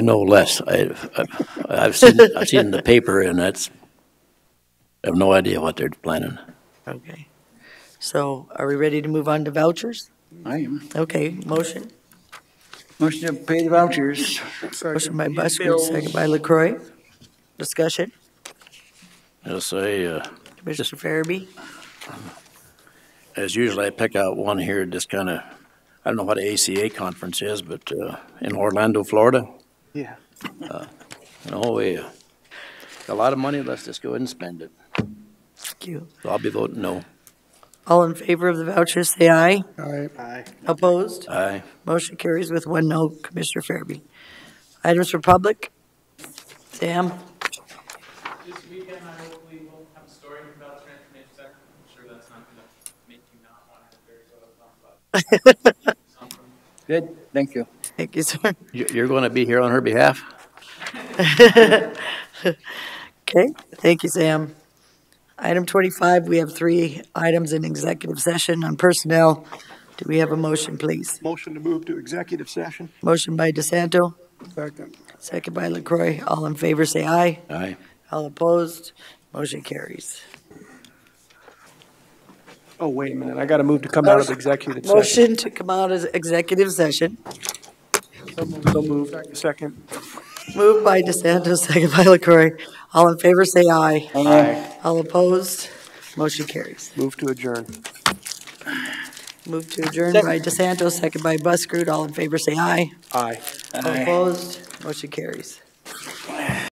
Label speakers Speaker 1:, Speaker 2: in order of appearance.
Speaker 1: No less. I, I've, I've seen, I've seen the paper and that's, I have no idea what they're planning.
Speaker 2: Okay. So are we ready to move on to vouchers?
Speaker 3: I am.
Speaker 2: Okay, motion.
Speaker 3: Motion to pay the vouchers.
Speaker 2: Motion by Busker, second by LaCroy. Discussion,
Speaker 1: Yes, I, uh,
Speaker 2: Commissioner Farabee?
Speaker 1: as usual, I pick out one here, just kind of, I don't know what a ACA conference is, but, uh, in Orlando, Florida.
Speaker 3: Yeah.
Speaker 1: You know, we, uh, got a lot of money, let's just go ahead and spend it.
Speaker 2: Thank you.
Speaker 1: So I'll be voting no.
Speaker 2: All in favor of the vouchers, say aye.
Speaker 3: Aye.
Speaker 2: Opposed?
Speaker 1: Aye.
Speaker 2: Motion carries with one no, Commissioner Farabee. Items for public? Sam?
Speaker 4: This weekend, I hopefully will have a story about transformation sector. I'm sure that's not gonna make you not want to hear what I'm talking about. Something.
Speaker 3: Good, thank you.
Speaker 2: Thank you, sir.
Speaker 1: You- You're going to be here on her behalf?
Speaker 2: Okay, thank you, Sam. Item 25, we have three items in executive session on personnel. Do we have a motion, please?
Speaker 5: Motion to move to executive session.
Speaker 2: Motion by DeSanto,
Speaker 5: Second.
Speaker 2: second by LaCroy. All in favor, say aye.
Speaker 1: Aye.
Speaker 2: All opposed, motion carries.
Speaker 5: Oh, wait a minute, I gotta move to come out of executive session.
Speaker 2: Motion to come out of executive session.
Speaker 5: So moved. Second.
Speaker 2: Moved by DeSanto, second by LaCroy. All in favor, say aye.
Speaker 5: Aye.
Speaker 2: All opposed, motion carries.
Speaker 5: Move to adjourn.
Speaker 2: Move to adjourn by DeSanto, second by Buschrood. All in favor, say aye.
Speaker 5: Aye.
Speaker 2: All opposed, motion carries.